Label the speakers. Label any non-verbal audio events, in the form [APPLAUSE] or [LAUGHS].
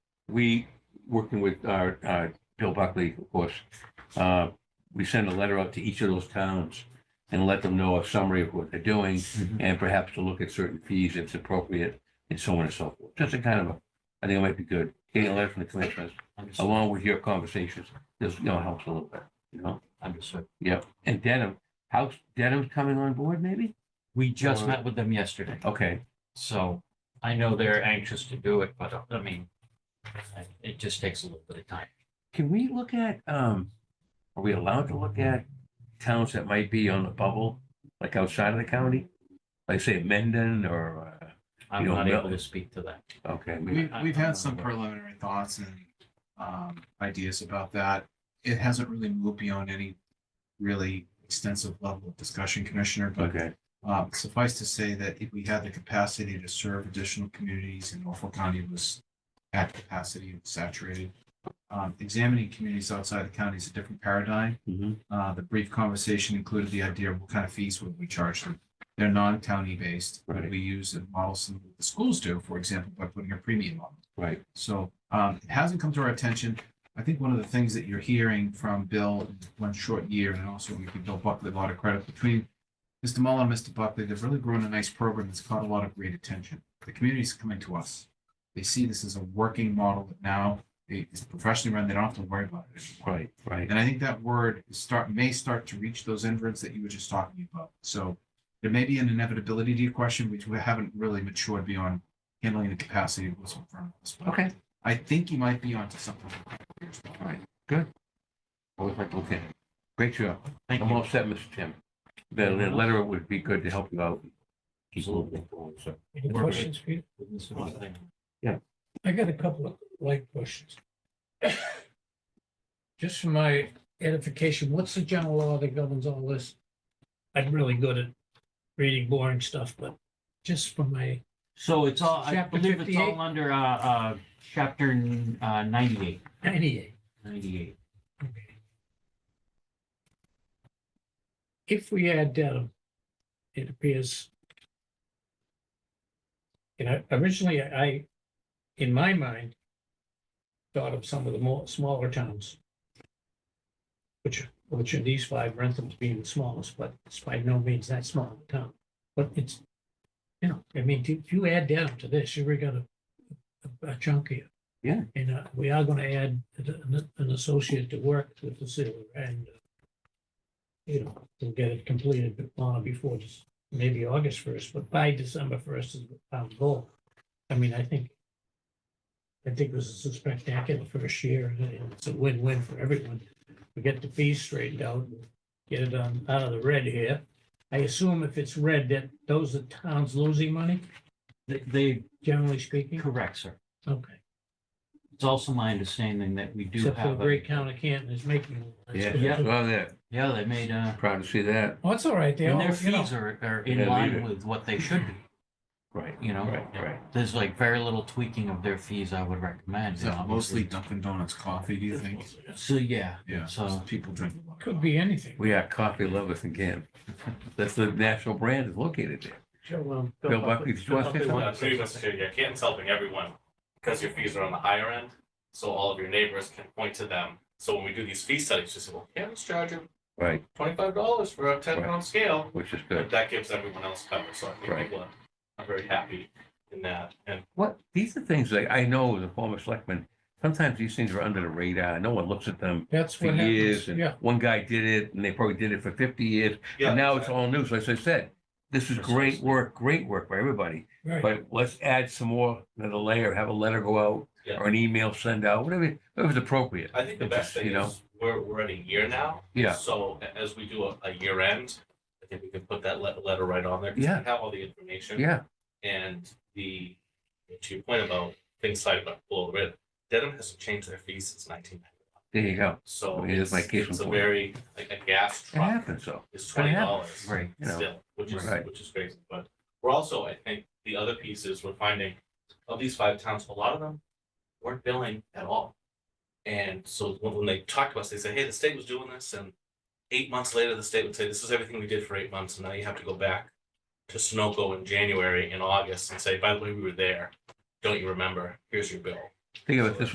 Speaker 1: we, working with our, uh, Bill Buckley, of course, uh, we send a letter out to each of those towns and let them know a summary of what they're doing and perhaps to look at certain fees if it's appropriate and so on and so forth. Just a kind of, a I think it might be good, getting a letter from the commissioners
Speaker 2: Understood.
Speaker 1: along with your conversations, this, you know, helps a little bit, you know?
Speaker 2: Understood.
Speaker 1: Yep. And Denham, how's Denham's coming on board maybe?
Speaker 2: We just
Speaker 1: Or-
Speaker 2: met with them yesterday,
Speaker 1: Okay,
Speaker 2: so I know they're anxious to do it, but uh, I mean, I- it just takes a little bit of time.
Speaker 1: can we look at, um, are we allowed to look at towns that might be on the bubble, like outside of the county? Like say Mendon or,
Speaker 2: I'm
Speaker 1: You don't
Speaker 2: not
Speaker 1: know.
Speaker 2: able to speak to that.
Speaker 1: uh, okay, we-
Speaker 3: We've, we've had some preliminary thoughts and, um, ideas about that. It hasn't really moved beyond any really extensive level of discussion, Commissioner, but,
Speaker 1: okay,
Speaker 3: um, suffice to say that if we had the capacity to serve additional communities and Norfolk County was at capacity and saturated, um, examining communities outside the county is a different paradigm.
Speaker 1: mhm,
Speaker 3: Uh, the brief conversation included the idea of what kind of fees would we charge them. They're non-county based.
Speaker 1: Right.
Speaker 3: We use a model similar to what the schools do, for example, by putting a premium on them.
Speaker 1: right,
Speaker 3: So um, it hasn't come to our attention. I think one of the things that you're hearing from Bill in one short year, and also we give Bill Buckley a lot of credit between Mr. Mullin and Mr. Buckley, they've really grown a nice program that's caught a lot of great attention. The community's coming to us. They see this as a working model that now is professionally run. They don't have to worry about it. anymore.
Speaker 1: right, right,
Speaker 3: And I think that word is start, may start to reach those inverts that you were just talking about. So there may be an inevitability to your question, which we haven't really matured beyond handling the capacity of what's in front of us. But
Speaker 1: okay.
Speaker 3: I think you might be onto something.
Speaker 1: All right, good. Always like looking. Great job.
Speaker 2: Thank
Speaker 1: I'm
Speaker 2: you.
Speaker 1: all set, Mr. Tim. The, the letter would be good to help you out. Keep moving forward, so.
Speaker 4: Any
Speaker 2: We're good.
Speaker 4: questions, Peter?
Speaker 2: With Mr. Montano.
Speaker 4: I got a couple of light questions. [COUGHS] Just for my edification, what's the general law that governs all this? I'm really good at reading boring stuff, but just for my,
Speaker 2: So it's all, I
Speaker 4: Chapter
Speaker 2: believe it's
Speaker 4: 58?
Speaker 2: all under, uh, uh, chapter uh, ninety-eight,
Speaker 4: anyway,
Speaker 2: ninety-eight.
Speaker 4: if we add Dedham, it appears. You know, originally I, in my mind, thought of some of the more smaller towns. Which, which in these five, Rentham's being the smallest, but it's by no means that small of a town. But it's, you know, I mean, if you add Dedham to this, you're gonna a- a chunk here.
Speaker 1: Yeah.
Speaker 4: And uh, we are gonna add an an associate to work with the city and uh, you know, we'll get it completed on or before just maybe August first, but by December first is our goal. I mean, I think I think this is a spectacular first year and and it's a win-win for everyone. We get the fees straightened out, and get it on out of the red here. I assume if it's red, that those are towns losing money,
Speaker 2: They,
Speaker 4: generally
Speaker 2: they-
Speaker 4: speaking.
Speaker 2: correct, sir.
Speaker 4: Okay.
Speaker 2: It's also my understanding that we do
Speaker 4: Except for
Speaker 2: have. a-
Speaker 4: Great County Canton is making. that's
Speaker 1: Yeah,
Speaker 4: good.
Speaker 2: Yeah.
Speaker 1: well, yeah,
Speaker 2: Yeah, they made, uh,
Speaker 1: proud to see that.
Speaker 4: Well, it's all right. They
Speaker 2: and
Speaker 4: all,
Speaker 2: their
Speaker 4: you know,
Speaker 2: fees are, are
Speaker 1: Yeah,
Speaker 2: in
Speaker 1: leave
Speaker 2: line
Speaker 1: it.
Speaker 2: with what they should be.
Speaker 1: Right,
Speaker 2: you know?
Speaker 1: Right, right.
Speaker 2: There's like very little tweaking of their fees I would recommend.
Speaker 3: Is that
Speaker 2: and
Speaker 3: mostly
Speaker 2: obviously-
Speaker 3: Dunkin' Donuts coffee, do you
Speaker 4: [LAUGHS]
Speaker 3: think?
Speaker 2: So, yeah.
Speaker 3: Yeah, so
Speaker 2: So,
Speaker 3: people drink a lot. of
Speaker 4: could be anything.
Speaker 1: We are coffee lovers again. That's the national brand is located there.
Speaker 4: Bill um,
Speaker 1: Bill Buckley, did you want to say
Speaker 5: Uh,
Speaker 1: something?
Speaker 5: Pretty much, too, yeah, Canton's helping everyone because your fees are on the higher end, so all of your neighbors can point to them. So when we do these fee studies, just say, well, Canton's charging
Speaker 1: Right,
Speaker 5: twenty-five dollars for a ten
Speaker 1: Right.
Speaker 5: pound scale.
Speaker 1: which is
Speaker 5: But
Speaker 1: good.
Speaker 5: that gives everyone else cover, so I think
Speaker 1: Right.
Speaker 5: people are- are very happy in that. And
Speaker 1: What, these are things that I know as a former selectman, sometimes these things are under the radar. No one looks at them
Speaker 4: That's
Speaker 1: for
Speaker 4: what happens.
Speaker 1: years.
Speaker 4: Yeah,
Speaker 1: And one guy did it and they probably did it for fifty years.
Speaker 5: yeah,
Speaker 1: And now it's all news. Like I said, this is great
Speaker 5: Precisely.
Speaker 1: work, great work by everybody.
Speaker 4: right.
Speaker 1: But let's add some more, another layer, have a letter go out
Speaker 5: Yeah.
Speaker 1: or an email send out, whatever, whatever's appropriate.
Speaker 5: I think the
Speaker 1: It's
Speaker 5: best
Speaker 1: just,
Speaker 5: thing
Speaker 1: you know,
Speaker 5: is we're, we're at a year now.
Speaker 1: Yeah.
Speaker 5: So a- as we do a, a year end, I think we can put that le- letter right on there. 'cause we
Speaker 1: Yeah.
Speaker 5: Have all the information.
Speaker 1: Yeah,
Speaker 5: And the, to your point about things cited by below the red, Dedham hasn't changed their fees since nineteen ninety.
Speaker 1: there you go.
Speaker 5: So
Speaker 1: Oh, here's
Speaker 5: it's,
Speaker 1: my case
Speaker 5: it's
Speaker 1: in
Speaker 5: a
Speaker 1: point.
Speaker 5: very, like a gas
Speaker 1: It
Speaker 5: truck
Speaker 1: happens though, But
Speaker 5: is
Speaker 1: it
Speaker 5: twenty
Speaker 1: happens,
Speaker 5: dollars
Speaker 2: right.
Speaker 1: you know.
Speaker 5: still, which is,
Speaker 1: Right.
Speaker 5: which is crazy. But we're also, I think, the other piece is we're finding of these five towns, a lot of them weren't billing at all. And so when when they talk to us, they say, hey, the state was doing this and eight months later, the state would say, this is everything we did for eight months. And now you have to go back to Sunoco in January and August and say, by the way, we were there. Don't you remember? Here's your bill.
Speaker 1: Think of it this